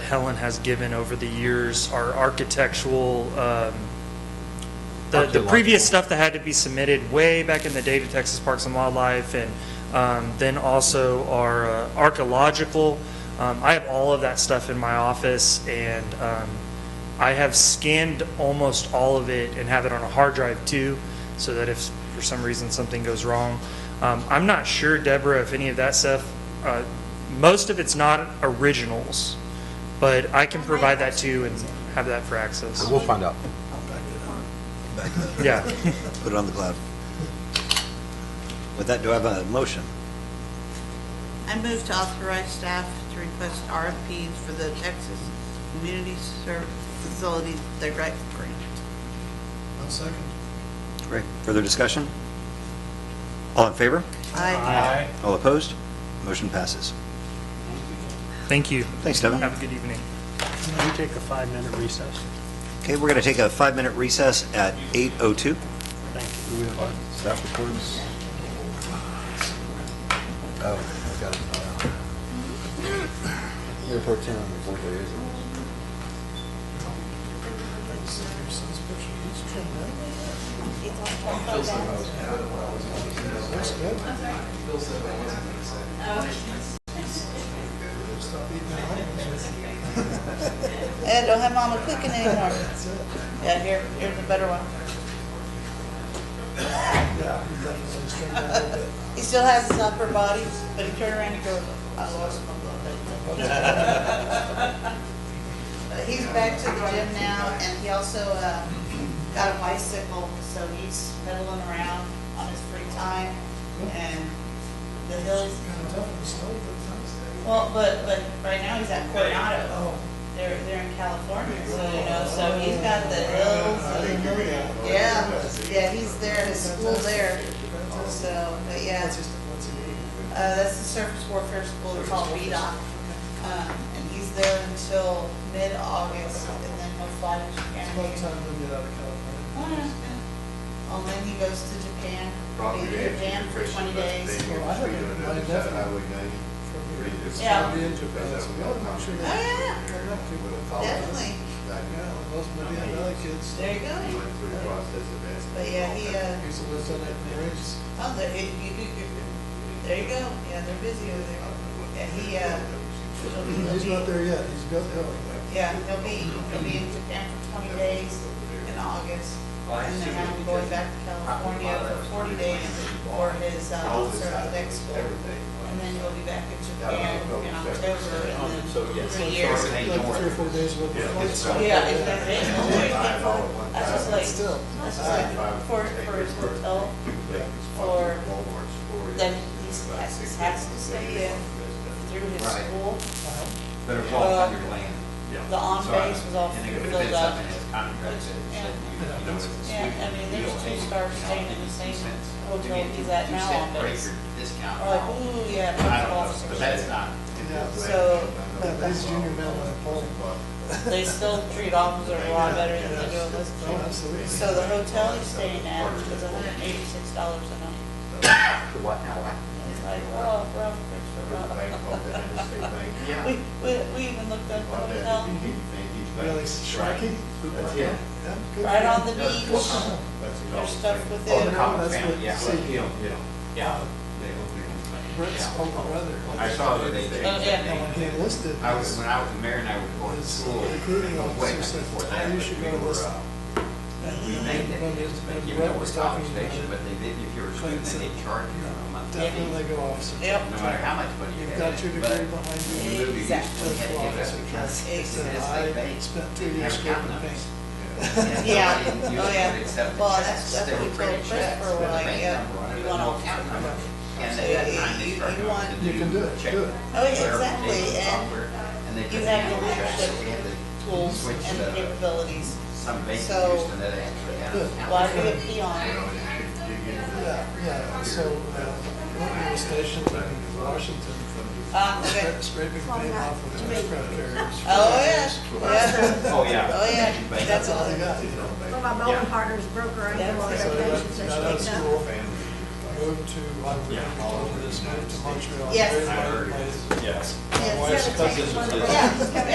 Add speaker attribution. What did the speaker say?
Speaker 1: Helen has given over the years are architectural, um, the, the previous stuff that had to be submitted way back in the day to Texas Parks and Wildlife, and um, then also our uh, archaeological. Um, I have all of that stuff in my office, and um, I have scanned almost all of it and have it on a hard drive too, so that if for some reason something goes wrong. Um, I'm not sure, Deborah, if any of that stuff, uh, most of it's not originals, but I can provide that to you and have that for access.
Speaker 2: We'll find out.
Speaker 1: Yeah.
Speaker 3: Put it on the cloud. With that, do I have a motion?
Speaker 4: I move to authorize staff to request RFPs for the Texas Community Service Facility Direct Grant.
Speaker 5: I'll second.
Speaker 3: Great. Further discussion? All in favor?
Speaker 4: Aye.
Speaker 3: All opposed? Motion passes.
Speaker 1: Thank you.
Speaker 3: Thanks, Devin.
Speaker 1: Have a good evening.
Speaker 5: Can we take a five-minute recess?
Speaker 3: Okay, we're going to take a five-minute recess at 8:02.
Speaker 5: Thank
Speaker 2: Staff reports. Oh, I got it. Mayor Pro Tem, what day is it?
Speaker 4: Eh, don't have mama cooking anymore. Yeah, here, here's a better one. He still has his upper body, but he turned around and goes, I lost my blood. But He's back to the gym now, and he also, uh, got a bicycle, so he's pedaling around on his free time, and the hills, well, but, but right now he's at Coronado. They're, they're in California, so, you know, so he's got the hills. and- Yeah, yeah, he's there, at his school there, so, but yeah. Uh, that's the surface warfare school, it's called VDOC. Um, and he's there until mid-August, and then he'll fly to Japan. Oh, yeah. Oh, And then he goes to Japan,
Speaker 6: Probably
Speaker 4: he's in Japan for twenty days. Yeah. Oh,
Speaker 6: Definitely.
Speaker 4: yeah, definitely. There you go. But yeah, he, uh, Oh, there, you, you, you, you- there you go, yeah, they're busy over there. Yeah, he, uh, he'll be- he'll
Speaker 5: He's not
Speaker 4: be,
Speaker 5: there yet, he's got going.
Speaker 4: yeah, he'll be, he'll be in Japan for twenty days in August. And then I'm going back to California for forty days for his, uh, officer of the next school. And then he'll be back in Japan in October and then three years.
Speaker 5: Like three or four days with the flights.
Speaker 4: Yeah, it's been, it's been, oh that's just like,
Speaker 5: Still.
Speaker 4: that's just like for, for his hotel,
Speaker 6: Or
Speaker 4: then he's, he has to stay there through his
Speaker 7: Right.
Speaker 4: school. Uh,
Speaker 7: Better walk on your land.
Speaker 4: The on base was all
Speaker 7: And it
Speaker 4: filled
Speaker 7: could have been
Speaker 4: up.
Speaker 7: something that's contracted, said you, you know, it's a
Speaker 4: Yeah, I mean,
Speaker 7: sweet
Speaker 4: there's
Speaker 7: deal.
Speaker 4: two stars staying in the same hotel he's at
Speaker 7: Two
Speaker 4: now
Speaker 7: cent
Speaker 4: on base.
Speaker 7: breaker Discount.
Speaker 4: Or like, ooh, yeah,
Speaker 7: I
Speaker 4: that's
Speaker 7: don't know, but
Speaker 4: officers.
Speaker 7: that's not,
Speaker 4: So
Speaker 5: Yeah, That's junior medal in bowling.
Speaker 4: they still treat officers a lot better than they do in this
Speaker 5: Oh,
Speaker 4: school.
Speaker 5: absolutely.
Speaker 4: So the hotel he's staying at is hundred and eighty-six dollars a night.
Speaker 7: what now?
Speaker 4: It's like, oh, rough, it's rough. We, we, we even looked up the hotel,
Speaker 5: Really striking.
Speaker 6: Yeah.
Speaker 5: Yeah, good.
Speaker 4: right on the beach. There's stuff
Speaker 7: Oh, the
Speaker 4: within.
Speaker 7: common
Speaker 5: that's
Speaker 7: family,
Speaker 5: what-
Speaker 7: yeah.
Speaker 5: see.
Speaker 7: Yeah, yeah.
Speaker 5: Brett's
Speaker 7: Yeah.
Speaker 5: older brother.
Speaker 7: I saw that they, they,
Speaker 4: Oh, yeah.
Speaker 5: No one
Speaker 7: they-
Speaker 5: came listed.
Speaker 7: I was, when I was in Marin, I would go to
Speaker 5: His
Speaker 7: school.
Speaker 5: recruiting
Speaker 7: Way
Speaker 5: officer said,
Speaker 7: before that,
Speaker 5: "Oh, you
Speaker 7: but
Speaker 5: should
Speaker 7: we
Speaker 5: go
Speaker 7: were,
Speaker 5: listen.
Speaker 7: uh,
Speaker 5: And
Speaker 7: We
Speaker 5: he-
Speaker 7: made it,
Speaker 5: when his-
Speaker 7: but
Speaker 5: when
Speaker 7: you know,
Speaker 5: Brett
Speaker 7: it
Speaker 5: was
Speaker 7: was
Speaker 5: talking
Speaker 7: college
Speaker 5: about
Speaker 7: station,
Speaker 5: it,
Speaker 7: but they did, if you were a student, then they charged you a month.
Speaker 5: Definitely go officer.
Speaker 4: Yep.
Speaker 7: No matter how much money you
Speaker 5: You've
Speaker 7: had.
Speaker 5: got your degree
Speaker 7: but
Speaker 5: behind
Speaker 7: you
Speaker 5: you.
Speaker 7: moved, you
Speaker 4: Exactly.
Speaker 7: just had to give up because
Speaker 5: He
Speaker 7: it's
Speaker 5: said,
Speaker 7: just
Speaker 5: I
Speaker 7: like bank.
Speaker 5: spent two
Speaker 7: You
Speaker 5: years
Speaker 7: have
Speaker 5: going to
Speaker 7: account
Speaker 5: paint.
Speaker 7: numbers.
Speaker 4: Yeah,
Speaker 7: Nobody used
Speaker 4: oh,
Speaker 7: to
Speaker 4: yeah.
Speaker 7: accept
Speaker 4: Well, that's,
Speaker 7: checks.
Speaker 4: that's
Speaker 7: They
Speaker 4: what we
Speaker 7: were
Speaker 4: told
Speaker 7: printing checks
Speaker 4: Christopher,
Speaker 7: with
Speaker 4: we're
Speaker 7: a
Speaker 4: like,
Speaker 7: bank number on
Speaker 4: yeah,
Speaker 7: it,
Speaker 4: you
Speaker 7: but
Speaker 4: want
Speaker 7: no
Speaker 4: all
Speaker 7: account
Speaker 4: kinds of
Speaker 7: number.
Speaker 4: money.
Speaker 7: And
Speaker 4: So
Speaker 7: at that
Speaker 4: you-
Speaker 7: time, they
Speaker 4: you-
Speaker 7: started
Speaker 4: you
Speaker 7: going
Speaker 4: want-
Speaker 7: to
Speaker 5: You can do it,
Speaker 7: check
Speaker 4: Oh,
Speaker 5: do it.
Speaker 4: yeah,
Speaker 7: verification
Speaker 4: exactly, and uh,
Speaker 7: software, and they
Speaker 4: You
Speaker 7: couldn't
Speaker 4: have
Speaker 7: handle
Speaker 4: the
Speaker 7: checks, so we had
Speaker 4: leadership
Speaker 7: to
Speaker 4: tools
Speaker 7: switch
Speaker 4: and
Speaker 7: the-
Speaker 4: the capabilities.
Speaker 7: Some bank
Speaker 4: So-
Speaker 7: used to that actually had an account.
Speaker 4: Why be a peon?
Speaker 5: Yeah, yeah, so, uh, when we were stationed in Washington,
Speaker 4: Ah, okay.
Speaker 5: scra- scraping paint off of the aircraft carriers.
Speaker 4: Oh, yeah, yeah,
Speaker 7: Oh, yeah.
Speaker 4: oh, yeah,
Speaker 7: Bank.
Speaker 4: that's all.
Speaker 5: All they got, you know.
Speaker 8: Well, my bowling partner's broker, I go on
Speaker 5: So they got,
Speaker 8: vacations,
Speaker 5: got out
Speaker 8: they're
Speaker 5: of
Speaker 8: state
Speaker 5: school, moved to, I would, moved to Montreal.
Speaker 4: Yes.
Speaker 5: very remote place.
Speaker 7: Yes.
Speaker 5: My wife's cousin was there.
Speaker 4: Yeah,